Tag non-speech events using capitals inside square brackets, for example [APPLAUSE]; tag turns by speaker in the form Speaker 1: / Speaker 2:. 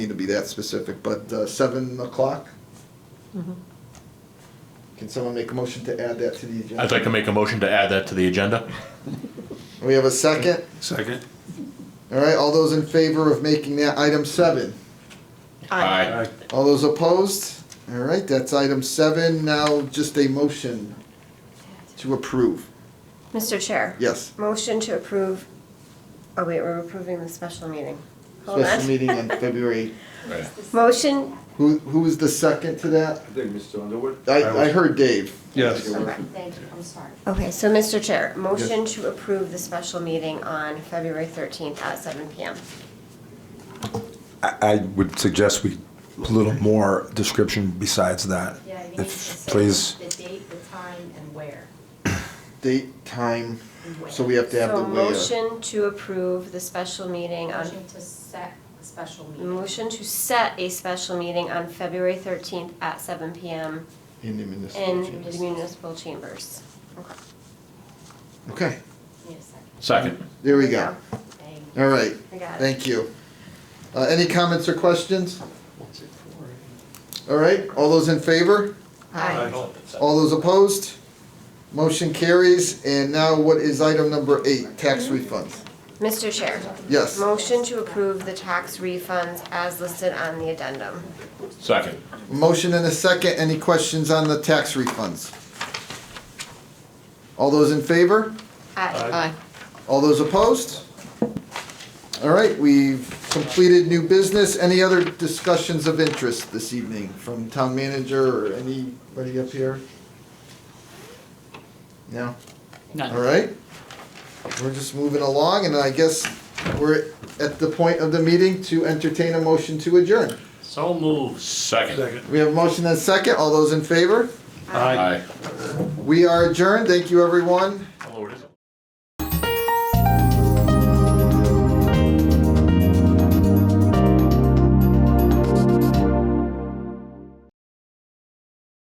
Speaker 1: need to be that specific, but uh, seven o'clock? Can someone make a motion to add that to the agenda?
Speaker 2: I'd like to make a motion to add that to the agenda.
Speaker 1: We have a second?
Speaker 3: Second.
Speaker 1: All right, all those in favor of making that item seven?
Speaker 2: Aye.
Speaker 1: All those opposed? All right, that's item seven. Now just a motion to approve.
Speaker 4: Mr. Chair.
Speaker 1: Yes.
Speaker 4: Motion to approve, oh wait, we're approving the special meeting. Hold
Speaker 1: Special
Speaker 4: on.
Speaker 1: meeting on February.
Speaker 4: [LAUGHS] Motion,
Speaker 1: [LAUGHS] Who, who was the second to that?
Speaker 5: I think Mr. Underwood?
Speaker 1: I, I heard Dave.
Speaker 3: Yes.
Speaker 4: Okay.
Speaker 6: Thank you, I'm sorry.
Speaker 4: okay, so Mr. Chair, motion to approve the special meeting on February 13th at 7 PM.
Speaker 7: I I would suggest we, a little more description besides that.
Speaker 6: Yeah, you need to
Speaker 7: Uh, If,
Speaker 6: say
Speaker 7: please,
Speaker 6: the date, the time, and where.
Speaker 1: Date, time,
Speaker 6: and when.
Speaker 1: so we have to have the
Speaker 4: So
Speaker 1: way. uh,
Speaker 4: motion to approve the special meeting on,
Speaker 6: Motion to set a special meeting.
Speaker 4: motion to set a special meeting on February 13th at 7 PM
Speaker 1: In the municipal.
Speaker 4: in
Speaker 1: chamber.
Speaker 4: the municipal chambers. Okay.
Speaker 1: Okay,
Speaker 6: Need a second.
Speaker 2: Second.
Speaker 1: there we go.
Speaker 6: Thank you.
Speaker 1: All right,
Speaker 4: I got it.
Speaker 1: thank you. Uh, any comments or questions? All right, all those in favor?
Speaker 4: Aye.
Speaker 1: All those opposed? Motion carries, and now what is item number eight, tax refunds?
Speaker 4: Mr. Chair.
Speaker 1: Yes.
Speaker 4: Motion to approve the tax refunds as listed on the addendum.
Speaker 2: Second.
Speaker 1: Motion and a second, any questions on the tax refunds? All those in favor?
Speaker 4: Aye.
Speaker 1: All those opposed? All right, we've completed new business. Any other discussions of interest this evening from town manager or anybody up here? No? All right. We're just moving along, and I guess we're at the point of the meeting to entertain a motion to adjourn.
Speaker 8: So moved.
Speaker 2: Second.
Speaker 1: We have a motion and a second. All those in favor?
Speaker 2: Aye.
Speaker 1: We are adjourned. Thank you, everyone.